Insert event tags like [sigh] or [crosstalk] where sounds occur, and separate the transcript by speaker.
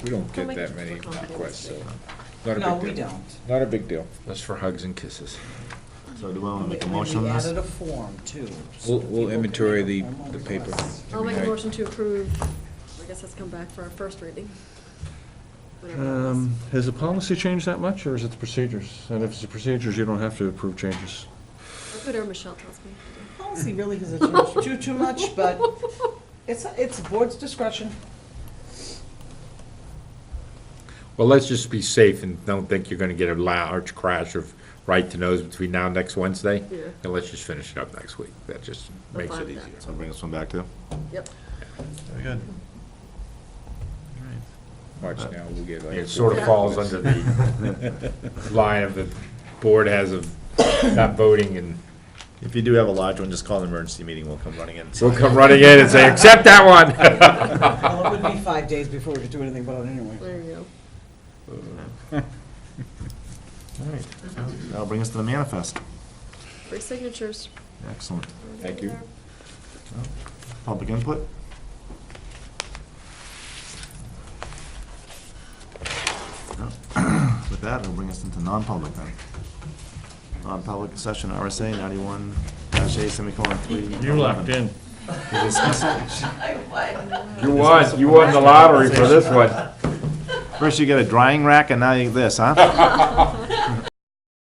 Speaker 1: We don't
Speaker 2: Don't
Speaker 1: get
Speaker 2: make
Speaker 1: that
Speaker 2: it
Speaker 1: many
Speaker 2: overcomplicated.
Speaker 1: requests, so, not a big deal.
Speaker 3: No, we don't.
Speaker 1: Not a big deal.
Speaker 4: That's for hugs and kisses.
Speaker 5: So do we want to make a
Speaker 3: And
Speaker 5: motion on
Speaker 3: We
Speaker 5: this?
Speaker 3: added a form too. so
Speaker 1: We'll, we'll
Speaker 3: people can
Speaker 1: inventory
Speaker 3: make
Speaker 1: the,
Speaker 3: formal
Speaker 1: the paper.
Speaker 3: requests.
Speaker 2: I'll
Speaker 1: every
Speaker 2: make a
Speaker 1: night.
Speaker 2: motion to approve, I guess that's come back for our first reading. Whatever that was.
Speaker 6: Um, Has the policy changed that much, or is it the procedures? And if it's the procedures, you don't have to approve changes.
Speaker 2: Whatever Michelle tells me. to
Speaker 3: Policy really doesn't change too, too much, [laughs] but it's, it's board's discretion.
Speaker 4: Well, let's just be safe and don't think you're gonna get a large crash of right-to-knows between now and next Wednesday.
Speaker 2: Yeah.
Speaker 4: And let's just finish it up next week. That just
Speaker 2: I'm
Speaker 4: makes
Speaker 2: fine
Speaker 4: it
Speaker 2: with that.
Speaker 4: easier.
Speaker 5: So bring this one back to?
Speaker 2: do. Yep.
Speaker 5: Very good.
Speaker 1: Watch now, we'll get like.
Speaker 4: It sort of falls under the
Speaker 1: [laughs]
Speaker 4: line of the board has of not voting and
Speaker 5: If you do have a large one, just call an emergency meeting, we'll come running in.
Speaker 4: we'll come running in and say, accept that one.
Speaker 3: Well, it would be five days before we could do anything about it anyway.
Speaker 2: There you go.
Speaker 5: That'll bring us to the manifest.
Speaker 2: Three signatures.
Speaker 5: Excellent.
Speaker 1: Thank you.
Speaker 5: Public input? No. [clears throat] With that, it'll bring us into non-public then. Non-public session, RSA ninety-one dash A semicolon three.
Speaker 6: You're locked in.
Speaker 4: You won, you won the lottery for this one.
Speaker 5: First you get a drying rack and now you get this, huh?